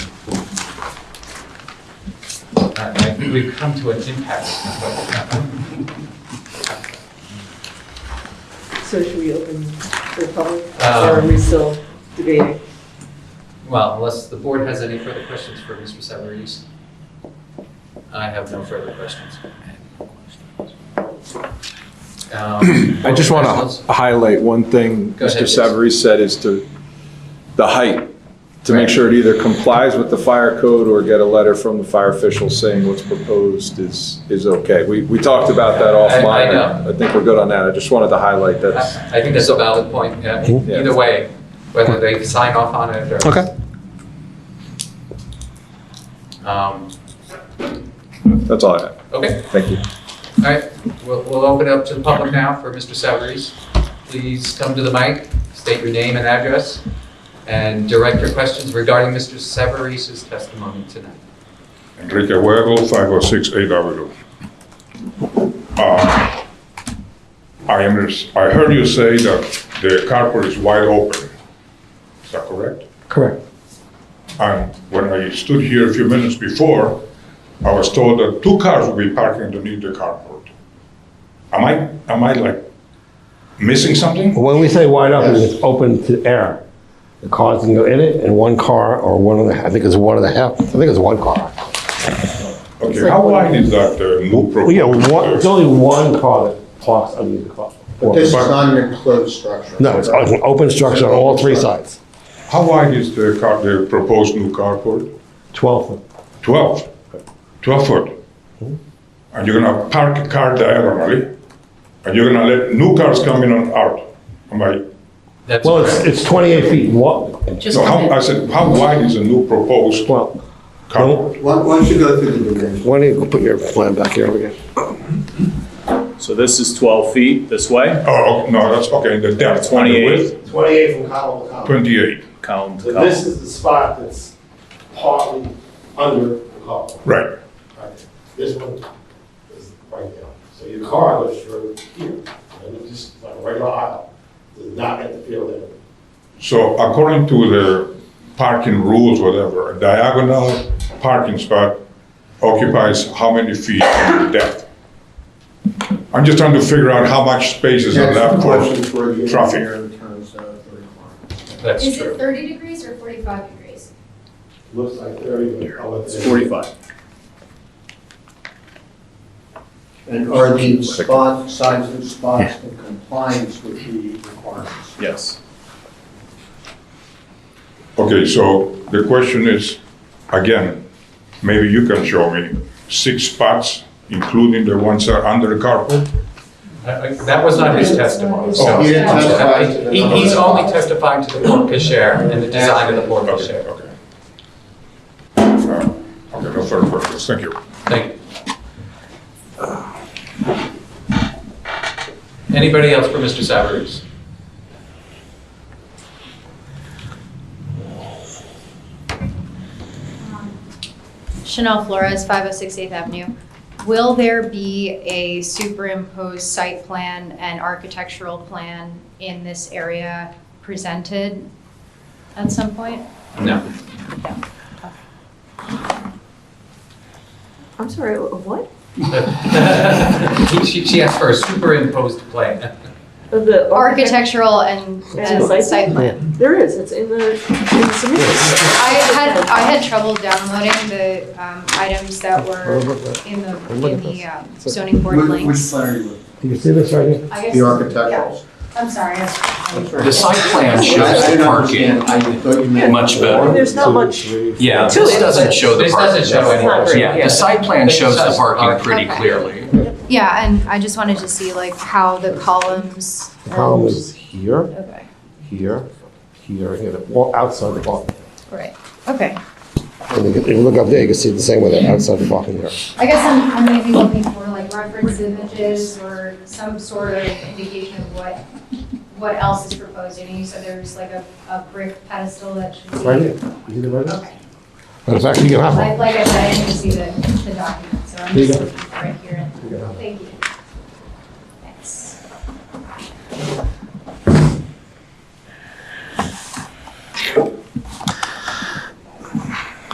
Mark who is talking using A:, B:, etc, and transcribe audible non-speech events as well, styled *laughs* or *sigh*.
A: I I think we've come to an impasse.
B: So should we open the public, or are
A: Um,
B: we still debating?
A: Well, unless the board has any further questions for Mr. Savarese. I have no further questions. Um,
C: I just want
A: professionals?
C: to highlight one thing
A: Go ahead,
C: Mr.
A: yes.
C: Savarese said is to, the height, to
A: Right.
C: make sure it either complies with the fire code or get a letter from the fire official saying what's proposed is, is okay. We, we talked about that
A: I- I
C: offline.
A: know.
C: I think we're good on that. I just wanted to highlight that's,
A: I I think that's a valid point, yeah,
C: Yeah.
A: either way, whether they sign off on it or.
C: Okay.
A: Um,
C: that's all I have.
A: Okay,
C: Thank you.
A: all right, we'll, we'll open it up to the public now for Mr. Savarese. Please come to the mic, state your name and address, and direct your questions regarding Mr. Savarese's testimony tonight.
D: Enrique Huevo, 506 8th Avenue. Uh, I am, I heard you say that the carport is wide open. Is that correct?
E: Correct.
D: And when I stood here a few minutes before, I was told that two cars would be parking underneath the carport. Am I, am I like missing something?
E: When we say wide open, it's open to air. The cars can go in it, and one car, or one and a half, I think it's one and a half, I think it's one car.
D: Okay, how wide is that uh, new
E: Well,
D: proposed?
E: Oh, yeah, one, it's
D: uh,
E: only one car that parks underneath the car.
F: But this is not an enclosed structure.
E: No, it's an open structure on all three sides.
D: How wide is the car, the proposed new carport?
E: 12 foot.
D: 12, 12 foot. And you're gonna park a car diagonally, and you're gonna let new cars come in and out. Am I,
A: That's
E: Well, it's,
A: correct.
E: it's 28 feet wide.
G: Just
D: no,
G: a
D: how, I
G: minute.
D: said, how wide is the new proposed
E: Well,
D: carport?
F: Why why don't you go through the dimensions?
E: why don't you put your plan back here again?
H: So this is 12 feet this way,
D: Oh, no, that's, okay, the depth. and the
H: 28.
D: width,
I: 28 from column to column.
D: 28,
H: column
I: So
H: to
I: this
H: column.
I: is the spot that's partly under the column.
D: right.
I: right? This one is right there. So your car goes through here, and it's just like a regular aisle, does not interfere with it.
D: So according to the parking rules, whatever, a diagonal parking spot occupies how many feet in depth? I'm just trying to figure out how much space is left
F: That's
D: for
F: the question for the
D: traffic.
F: engineer in terms of the requirement.
A: That's
G: Is
A: true.
G: it 30 degrees or 45 degrees?
I: Looks like there you go.
H: It's 45.
F: And are the spot, size of spots in compliance with the requirements?
H: Yes.
D: Okay, so the question is, again, maybe you can show me, six spots, including the ones that are under the carport?
A: I- I- That was not
G: Oh,
A: his testimony, so.
F: You didn't testify to the
A: He-
F: number.
A: He's only testifying to the porte cochere and the design of the porte
D: Okay,
A: cochere.
D: okay. Uh, Okay, no further questions, thank you.
A: Thank you. Anybody else for Mr. Savarese? *laughs*
G: Chanel Flores, 506 8th Avenue. Will there be a superimposed site plan and architectural plan in this area presented at some point?
A: No.
B: I'm sorry, what?
A: He- She, she asked for a superimposed plan.
B: The architect,
G: Architectural and
B: And
G: and
B: site
G: site plan.
B: there is, it's in the, in the submission.
G: I had, I had trouble downloading the um, items that were in the, in the um, zoning board
F: Which which
G: links.
F: plan are you with?
E: Do you see this right here?
G: I guess-
F: The
G: yeah.
F: architecturals.
G: I'm sorry. I-
J: The site plan shows
F: I
J: the
F: didn't
J: parking.
F: understand. I thought you meant.
J: Much better.
B: There's not much.
J: Yeah,
B: To
J: this
B: it,
J: doesn't
B: but-
J: show the
A: This doesn't
J: parking.
A: show
B: It's not
A: any.
B: very-
J: Yeah, the site plan
A: This
J: shows the
A: shows
J: parking
A: parking.
J: pretty
G: Okay.
J: clearly.
G: Yeah, and I just wanted to see like how the columns.
E: The column
G: and-
E: is here,
G: Okay,
E: here, here, here, the- well, outside the parking.
G: right, okay.
E: And you can- If you look up there, you can see the same with the outside the parking here.
G: I guess I'm, I'm maybe looking for like reference images or some sort of indication of what, what else is proposed. You know, you said there's like a, a brick pedestal that should be.
E: Right here. You see the right here?
G: Okay.
E: Matter of fact, you can have one.
G: Like, like I said, I didn't see the, the document, so I'm
E: There you
G: just
E: go.
G: looking for it here. Thank you.